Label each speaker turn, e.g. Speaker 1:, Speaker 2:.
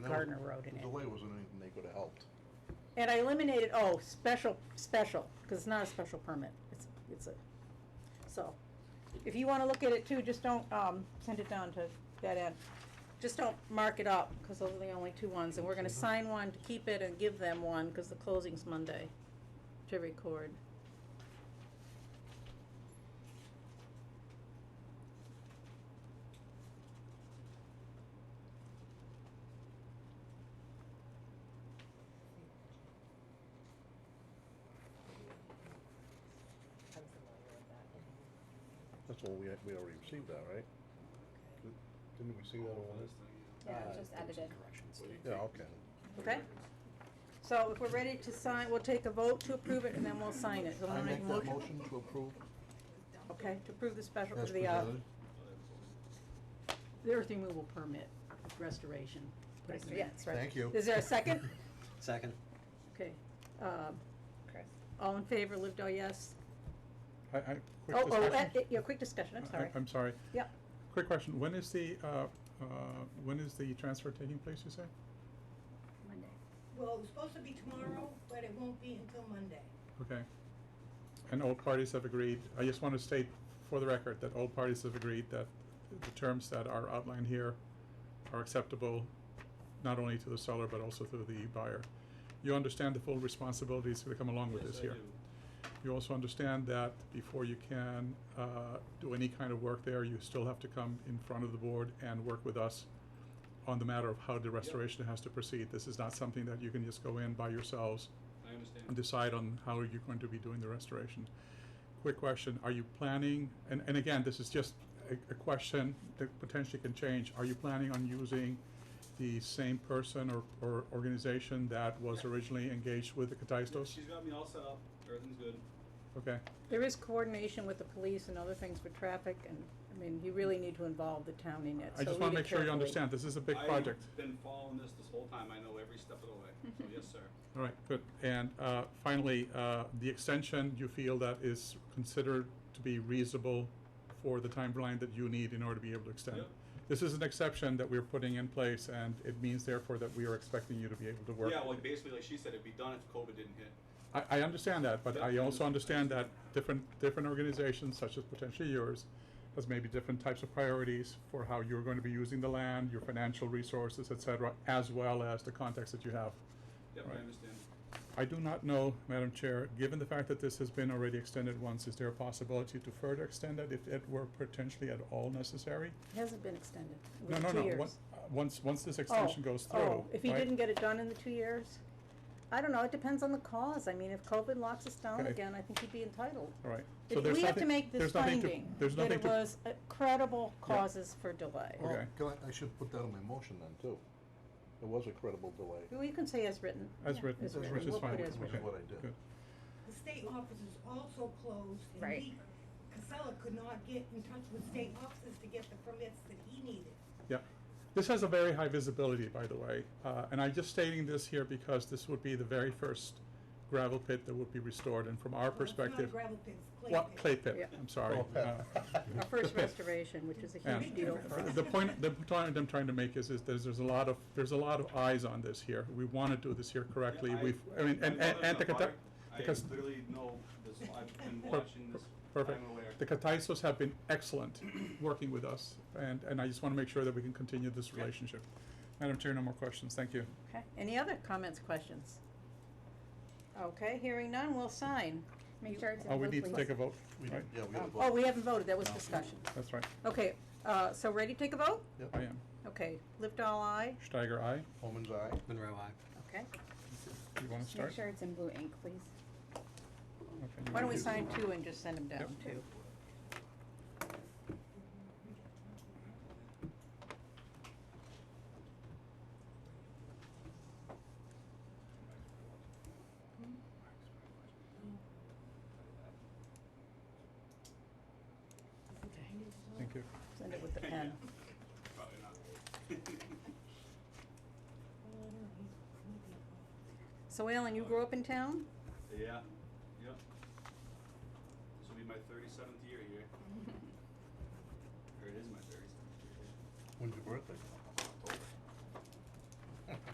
Speaker 1: Gardner Road in
Speaker 2: The
Speaker 1: it.
Speaker 2: delay wasn't anything they could have helped.
Speaker 1: And I eliminated, oh, special, special, because it's not a special permit, it's, it's a, so. If you wanna look at it too, just don't, um, send it down to that end. Just don't mark it up, because those are the only two ones, and we're gonna sign one to keep it and give them one, because the closing's Monday to record.
Speaker 3: I'm familiar with that, yeah.
Speaker 2: That's all, we, we already received that, right? Didn't we see that over
Speaker 3: Yeah, it
Speaker 2: Uh,
Speaker 3: was just edited.
Speaker 2: there? Yeah, okay.
Speaker 1: Okay. So if we're ready to sign, we'll take a vote to approve it, and then we'll sign it. Someone
Speaker 2: I
Speaker 1: make a
Speaker 2: make that motion to approve
Speaker 1: Okay, to approve the special
Speaker 2: as
Speaker 1: for the, uh,
Speaker 2: presented.
Speaker 1: the earth removal permit restoration. Put it in there.
Speaker 3: Yeah, it's right.
Speaker 2: Thank you.
Speaker 1: Is there a second?
Speaker 4: Second.
Speaker 1: Okay, um,
Speaker 3: Chris.
Speaker 1: all in favor, Livedall, yes?
Speaker 5: I, I, quick
Speaker 1: Oh, oh, uh,
Speaker 5: discussion.
Speaker 1: yeah, quick discussion, I'm
Speaker 5: I-
Speaker 1: sorry.
Speaker 5: I'm sorry.
Speaker 1: Yep,
Speaker 5: Quick question. When is the, uh, uh, when is the transfer taking place, you say?
Speaker 1: Monday.
Speaker 6: Well, it was supposed to be tomorrow, but it won't be until Monday.
Speaker 5: Okay. And all parties have agreed, I just want to state for the record that all parties have agreed that the terms that are outlined here are acceptable not only to the seller but also to the buyer. You understand the full responsibilities that come along with this here? You also understand that before you can uh, do any kind of work there, you still have to come in front of the board and work with us on the matter of how the restoration has to proceed. This is not something that you can just go in by yourselves
Speaker 7: I understand.
Speaker 5: and decide on how you're going to be doing the restoration. Quick question, are you planning, and, and again, this is just a, a question that potentially can change, are you planning on using the same person or, or organization that was originally engaged with the Cattistos?
Speaker 7: She's got me all set up, everything's good.
Speaker 5: Okay,
Speaker 1: There is coordination with the police and other things for traffic, and, I mean, you really need to involve the town in it,
Speaker 5: I
Speaker 1: so
Speaker 5: just
Speaker 1: read
Speaker 5: wanna
Speaker 1: it
Speaker 5: make sure you
Speaker 1: carefully.
Speaker 5: understand, this is a big project.
Speaker 7: I've been following this this whole time, I know every step of the way, so yes, sir.
Speaker 5: All right, good. And uh, finally, uh, the extension, you feel that is considered to be reasonable for the timeline that you need in order to be able to extend?
Speaker 7: Yep.
Speaker 5: This is an exception that we're putting in place, and it means therefore that we are expecting you to be able to work.
Speaker 7: Yeah, well, basically, like she said, it'd be done if COVID didn't hit.
Speaker 5: I, I understand that, but
Speaker 7: Yep,
Speaker 5: I
Speaker 7: I
Speaker 5: also
Speaker 7: understand.
Speaker 5: understand that different, different organizations, such as potentially yours, has maybe different types of priorities for how you're going to be using the land, your financial resources, et cetera, as well as the context that you have.
Speaker 7: Yep,
Speaker 5: Right.
Speaker 7: I understand.
Speaker 5: I do not know, Madam Chair, given the fact that this has been already extended once, is there a possibility to further extend it if it were potentially at all necessary?
Speaker 1: It hasn't been extended, it
Speaker 5: No,
Speaker 1: was
Speaker 5: no,
Speaker 1: two
Speaker 5: no,
Speaker 1: years.
Speaker 5: one- uh, once, once this
Speaker 1: Oh,
Speaker 5: extension goes through,
Speaker 1: Oh, if he
Speaker 5: right?
Speaker 1: didn't get it done in the two years? I don't know, it depends on the cause, I mean, if COVID locks us down
Speaker 5: Okay.
Speaker 1: again, I think he'd be entitled.
Speaker 5: All right. So
Speaker 1: If
Speaker 5: there's
Speaker 1: we have to
Speaker 5: nothing-
Speaker 1: make this
Speaker 5: there's nothing to-
Speaker 1: finding,
Speaker 5: There's
Speaker 1: that
Speaker 5: nothing
Speaker 1: it
Speaker 5: to.
Speaker 1: was uh, credible
Speaker 5: Yeah.
Speaker 1: causes for delay.
Speaker 2: Well,
Speaker 5: Okay.
Speaker 2: can I, I should put that in my motion then, too. It was a credible delay.
Speaker 1: Well, you can say as written.
Speaker 5: As
Speaker 1: Yeah,
Speaker 5: written,
Speaker 1: as
Speaker 2: As
Speaker 5: which
Speaker 2: written.
Speaker 5: is
Speaker 1: We'll
Speaker 5: fine.
Speaker 1: put
Speaker 2: Which
Speaker 1: as
Speaker 2: is
Speaker 1: written.
Speaker 5: Okay,
Speaker 2: what I did.
Speaker 5: good.
Speaker 6: The state office is also closed, and
Speaker 3: Right.
Speaker 6: he, Casella could not get in touch with state offices to get the permits that he needed.
Speaker 5: Yeah. This has a very high visibility, by the way. Uh, and I'm just stating this here because this would be the very first gravel pit that would be restored. And from our
Speaker 6: Well, it's not a
Speaker 5: perspective.
Speaker 6: gravel pit, it's clay
Speaker 5: What-
Speaker 6: pit.
Speaker 5: Clay pit,
Speaker 1: Yeah.
Speaker 5: I'm sorry. Uh,
Speaker 1: Our first restoration, which is a huge
Speaker 5: And
Speaker 1: deal for us.
Speaker 5: the point, the point I'm trying to make is, is there's, there's a lot of, there's a lot of eyes on this here. We wanna do this here correctly.
Speaker 7: Yeah, I-
Speaker 5: We've, I mean,
Speaker 7: I'm
Speaker 5: and,
Speaker 7: not
Speaker 5: and,
Speaker 7: in
Speaker 5: and the
Speaker 7: the
Speaker 5: Cata-
Speaker 7: fire.
Speaker 5: the Cas-
Speaker 7: I literally know this, I've been
Speaker 5: per-
Speaker 7: watching this, I'm aware.
Speaker 5: Perfect. The Cataisos have been excellent working with us, and, and I just wanna make sure that we can continue this relationship. Madam Chair, no more questions. Thank you.
Speaker 1: Okay, any other comments, questions? Okay, hearing none, we'll sign.
Speaker 3: Make sure it's in
Speaker 5: Oh, we
Speaker 3: blue,
Speaker 5: need to
Speaker 3: please.
Speaker 5: take a vote,
Speaker 2: We
Speaker 5: right?
Speaker 2: did, yeah, we had a vote.
Speaker 1: Oh, we haven't voted, that was discussion.
Speaker 5: That's right.
Speaker 1: Okay, uh, so ready to take a vote?
Speaker 2: Yep.
Speaker 5: I am.
Speaker 1: Okay, lift all eye,
Speaker 5: Steiger, aye.
Speaker 2: Holman's eye.
Speaker 4: Monroe, aye.
Speaker 1: okay.
Speaker 5: You wanna
Speaker 3: Make
Speaker 5: start?
Speaker 3: sure it's in blue ink, please.
Speaker 5: Okay, you
Speaker 1: Why don't we
Speaker 5: do-
Speaker 1: sign two and just send them down,
Speaker 5: Yep.
Speaker 1: two?
Speaker 5: Thank you.
Speaker 1: Send it with the pen.
Speaker 7: Probably not.
Speaker 1: So Alan, you grew up in town?
Speaker 7: Yeah, yep. This will be my thirty-seventh year here. Or it is my thirty-seventh year here.
Speaker 2: When's your birthday?